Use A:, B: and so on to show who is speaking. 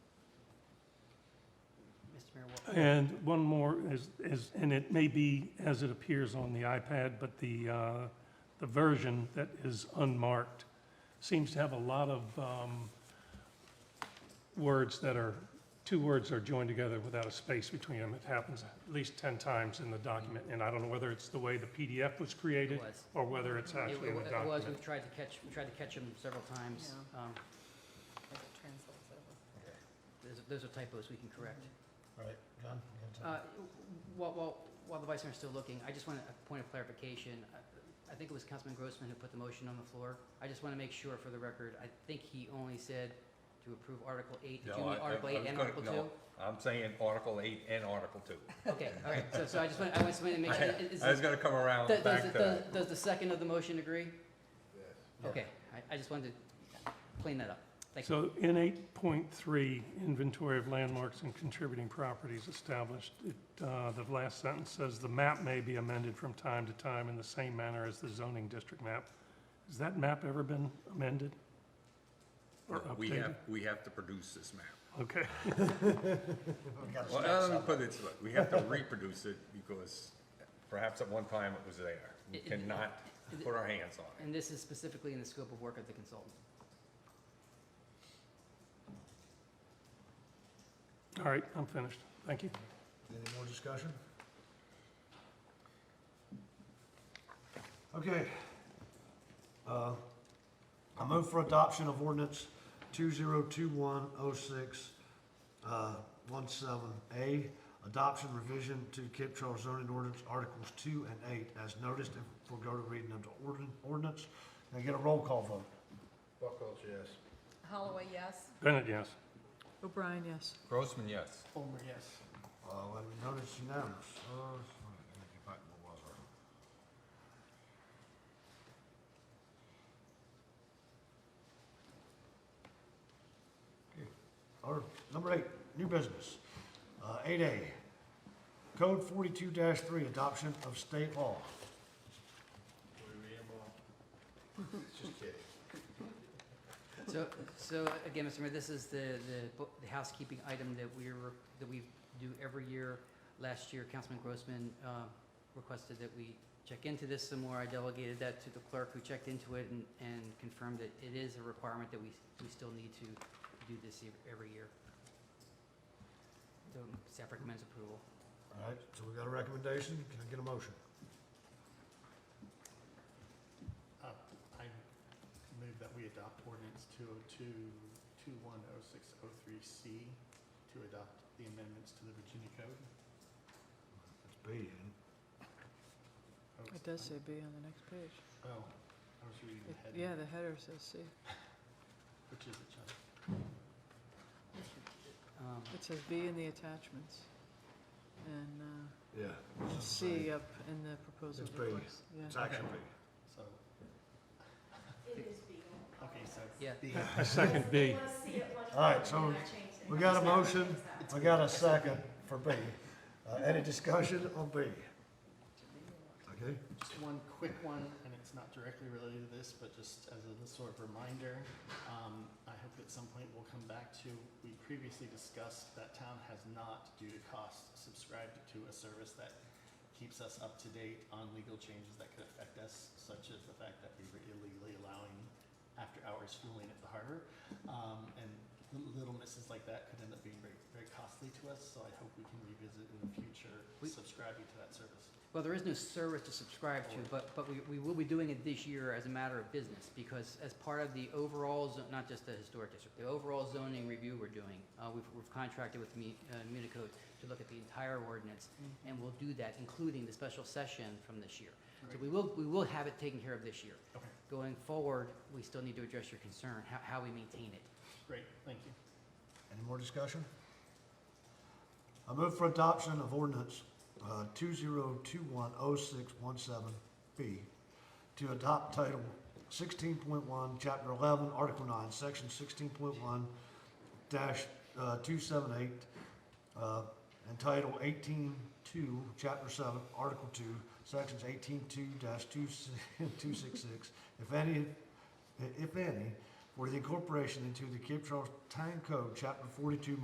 A: Mayor Walker.
B: And one more is, is, and it may be as it appears on the iPad, but the, uh, the version that is unmarked seems to have a lot of, um, words that are, two words are joined together without a space between them. It happens at least ten times in the document, and I don't know whether it's the way the PDF was
C: It
B: created
C: was.
B: or whether it's
C: It-
B: actually
C: It
B: in the
C: wa- it was,
B: document.
C: we tried to catch, we tried to catch them several times. Um, those- Those are typos we can correct.
A: All right, John? you got something?
C: Uh, While, while, while the vice mayor's still looking, I just want a point of clarification. I- I think it was Councilman Grossman who put the motion on the floor. I just want to make sure for the record, I think he only said to approve Article 8. Did you
D: No,
C: mean
D: I- I-
C: Article
D: I
C: 8
D: was
C: and
D: gonna-
C: Article 2?
D: no, I'm saying Article eight and Article two.
C: Okay, all right, so, so I just want, I just want to make sure, is- is
D: I was
C: this-
D: gonna come around
C: does,
D: back
C: does,
D: to
C: the-
D: that.
C: does the second of the motion agree? Okay, I, I just wanted to clean that up. Thank you.
B: So in eight point three, inventory of landmarks and contributing properties established, it, uh, the last sentence says the map may be amended from time to time in the same manner as the zoning district map. Has that map ever been amended? Or
D: No, We
B: updated?
D: have, we have to produce this map.
B: Okay,
A: We got to
D: Well,
A: start
D: let me
A: somewhere.
D: put it this way, we have to reproduce it because perhaps at one time it was there. We
C: It- it-
D: cannot put our hands on it.
C: And this is specifically in the scope of work of the consultant.
B: all right, I'm finished. Thank you.
A: Any more discussion? Okay. Uh, I move for adoption of ordinance two zero two one oh six, uh, one seven A, adoption revision to Cape Charles zoning ordinance articles two and eight as noticed and forego the reading of the ordin- ordinance. Now get a roll call vote.
E: Buckles, yes.
F: Holloway, yes.
B: Bennett, yes.
F: O'Brien, yes.
D: Grossman, yes.
C: Homer, yes.
A: Uh, let me know it's unanimous. Uh, let me get back to what was our- Okay. Our, number eight, new business. Uh, eight A, code forty-two three, adoption of state law.
E: We read 'em all. Just kidding.
C: So, so again, Mr. Mayor, this is the, the bo- the housekeeping item that we're, that we do every year. Last year, Councilman Grossman uh, requested that we check into this some more. I delegated that to the clerk who checked into it and, and confirmed that it is a requirement that we, we still need to do this e- every year. So staff recommends approval.
A: All right, so we got a recommendation, can I get a motion?
E: Uh, I move that we adopt ordinance two oh two, two one oh six oh three C to adopt the amendments to the Virginia Code.
A: It's B, and
E: Oh,
F: It
E: it's-
F: does say B on the next page.
E: Oh, I was reading the
F: It-
E: heading.
F: Yeah, the header says C.
E: Which is it, John?
C: Um,
F: It says B in the attachments. And uh,
A: yeah.
F: C up in the proposal
A: It's B.
F: request. Yeah.
A: It's action B.
E: So. It is B.
C: Yeah.
E: Okay, so. B.
B: I second B.
A: All right, so we got a motion, we got a second for B. Uh, Any discussion on B? Okay,
E: Just one quick one, and it's not directly related to this, but just as a sort of reminder, um, I hope at some point we'll come back to, we previously discussed that town has not, due to cost, subscribed to a service that keeps us up to date on legal changes that could affect us, such as the fact that we were illegally allowing after-hours fueling at the harbor. Um, and li- little misses like that could end up being very, very costly to us, so I hope we can revisit in the future
C: We-
E: subscribing to that service.
C: Well, there is no service to subscribe to, but, but we, we will be doing it this year as a matter of business, because as part of the overall, zo- not just the historic district, the overall zoning review we're doing, uh, we've, we've contracted with Mu- uh, Municode to look at the entire ordinance, and we'll do that, including the special session from this year. So we will, we will have it taken care of this year.
E: Okay.
C: Going forward, we still need to address your concern, how, how we maintain it.
E: Great, thank you.
A: any more discussion? I move for adoption of ordinance uh, two zero two one oh six one seven B to adopt title sixteen point one, chapter eleven, article nine, section sixteen point one dash uh, two seven eight, uh, and title eighteen two, chapter seven, article two, sections eighteen two dash two six six, if any, if any, for the incorporation into the Cape Charles Town Code, chapter forty-two,